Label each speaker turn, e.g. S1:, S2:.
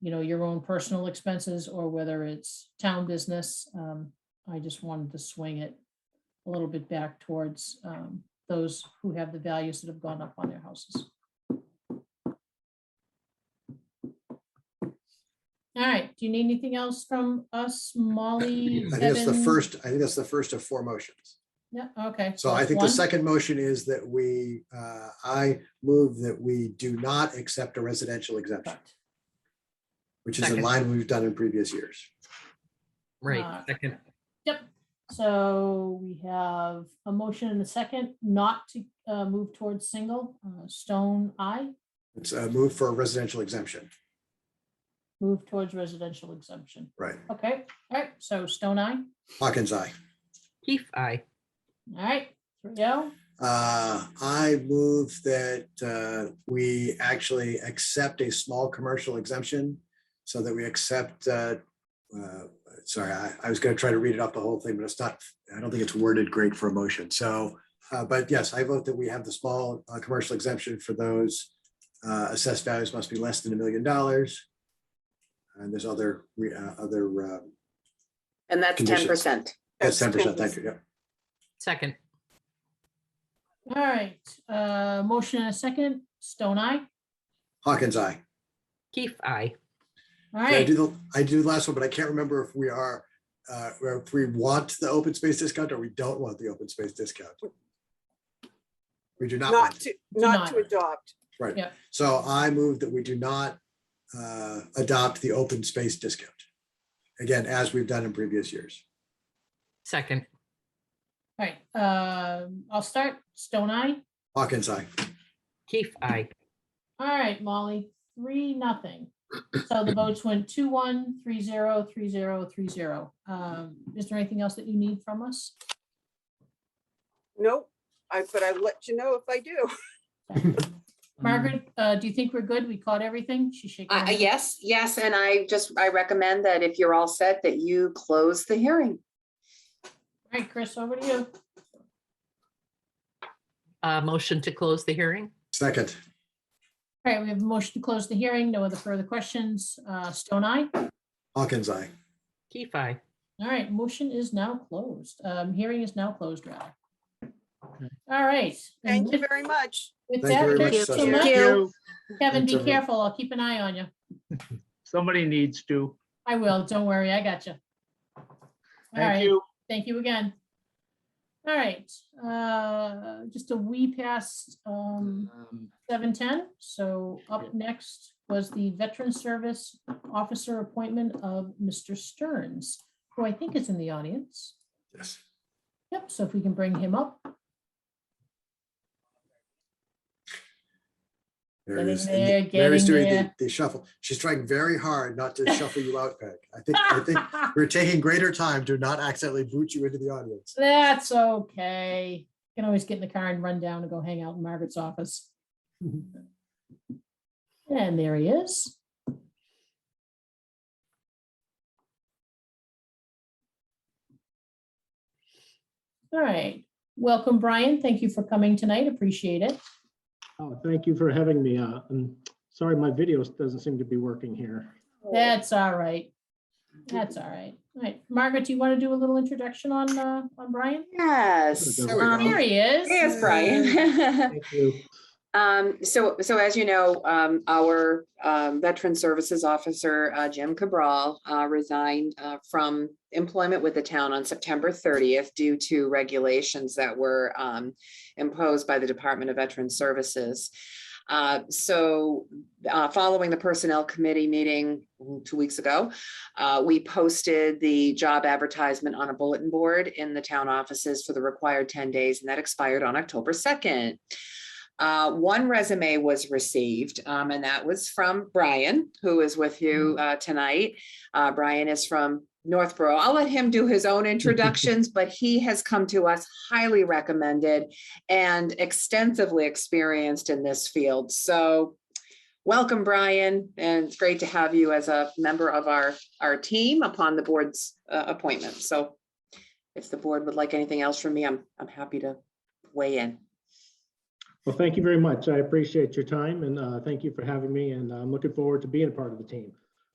S1: you know, your own personal expenses or whether it's town business. Um, I just wanted to swing it a little bit back towards um, those who have the values that have gone up on their houses. All right, do you need anything else from us, Molly?
S2: I think that's the
S1: Kevin?
S2: first, I think that's the first of four motions.
S1: Yeah, okay.
S2: So I think the
S1: that's one.
S2: second motion is that we, uh, I move that we do not accept a residential exemption,
S1: Correct.
S2: which is in
S3: Second.
S2: line we've done in previous years.
S1: Uh,
S3: Right, second,
S1: So we have a motion and a second not to uh, move towards single. Uh, Stone, I
S2: It's a move for a residential exemption,
S1: move towards residential exemption.
S2: right?
S1: Okay, all right, so Stone, I,
S2: Hawkins, aye.
S3: Keith, I,
S1: all right, three oh.
S2: Uh, I move that uh, we actually accept a small commercial exemption so that we accept, uh, uh, sorry, I I was going to try to read it up the whole thing, but it's not, I don't think it's worded great for a motion. So, uh, but yes, I vote that we have the small uh, commercial exemption for those uh, assessed values must be less than a million dollars. And there's other, re- uh, other, uh,
S4: And that's ten
S2: Conditions.
S4: percent.
S2: that's 10%, thank you. yeah.
S3: second,
S1: All right, uh, motion and a second, Stone, I,
S2: Hawkins, aye.
S3: Keith, I,
S1: all
S2: Yeah, I
S1: right.
S2: do the, I do the last one, but I can't remember if we are, uh, or if we want the open space discount or we don't want the open space discount. We do not,
S5: Not
S2: want it.
S5: to, not to
S1: not.
S5: adopt.
S2: right.
S1: yeah.
S2: So I move that we do not, uh, adopt the open space discount. Again, as we've done in previous years.
S3: second,
S1: All right, uh, I'll start, Stone, I,
S2: Hawkins, aye.
S3: Keith, I,
S1: all right, Molly, three, nothing. So the votes went two, one, three, zero, three, zero, three, zero. Um, is there anything else that you need from us?
S5: Nope. I, but I let you know if I do.
S1: Margaret, uh, do you think we're good? We caught everything? She's shaking. her
S4: Uh,
S1: head.
S4: yes, yes, and I just, I recommend that if you're all set, that you close the hearing.
S1: All right, Chris, over to you.
S3: uh, motion to close the hearing,
S2: Second,
S1: All right, we have a motion to close the hearing. No other further questions. Uh, Stone eye.
S2: Hawkins, aye.
S3: Keith, I.
S1: All right, motion is now closed. Um, hearing is now closed, rather. All right. and
S5: Thank you
S1: with-
S5: very much.
S1: with
S2: Thank you
S1: that,
S2: very much.
S1: thank you so
S2: Cecily.
S1: much.
S6: you.
S1: Kevin,
S2: Thanks,
S1: be
S2: everyone.
S1: careful. I'll keep an eye on you.
S6: Somebody needs to.
S1: I will. Don't worry. I got you. All
S6: Thank
S1: right.
S6: you.
S1: Thank you again. All right, uh, just a wee past, um, seven ten. So up next was the Veteran Service Officer appointment of Mr. Stearns, who I think is in the audience.
S2: Yes.
S1: Yep, so if we can bring him up.
S2: There
S1: Get
S2: it
S1: in
S2: is.
S1: there,
S2: And
S1: get
S2: Mary's
S1: in
S2: doing the
S1: there.
S2: the shuffle. She's trying very hard not to shuffle you out, Peg. I think, I think we're taking greater time to not accidentally boot you into the audience.
S1: That's okay. Can always get in the car and run down and go hang out in Margaret's office. And there he is. All right, welcome, Brian. Thank you for coming tonight. Appreciate it.
S7: Oh, thank you for having me. Uh, I'm sorry, my video doesn't seem to be working here.
S1: That's all right. That's all right. All right, Margaret, do you want to do a little introduction on, uh, on Brian?
S4: Yes.
S7: There
S2: we go.
S4: um,
S1: There he is.
S4: Yes, Brian.
S7: Thank you.
S4: Um, so, so as you know, um, our, um, Veteran Services Officer, uh, Jim Cabral, uh, resigned, uh, from employment with the town on September thirtieth due to regulations that were, um, imposed by the Department of Veteran Services. Uh, so, uh, following the Personnel Committee meeting two weeks ago, uh, we posted the job advertisement on a bulletin board in the town offices for the required ten days, and that expired on October second. Uh, one resume was received, um, and that was from Brian, who is with you uh, tonight. Uh, Brian is from Northborough. I'll let him do his own introductions, but he has come to us highly recommended and extensively experienced in this field. So, welcome, Brian, and it's great to have you as a member of our our team upon the board's uh, appointment. So, if the board would like anything else from me, I'm I'm happy to weigh in.
S7: Well, thank you very much. I appreciate your time and uh, thank you for having me and I'm looking forward to being a part of the team.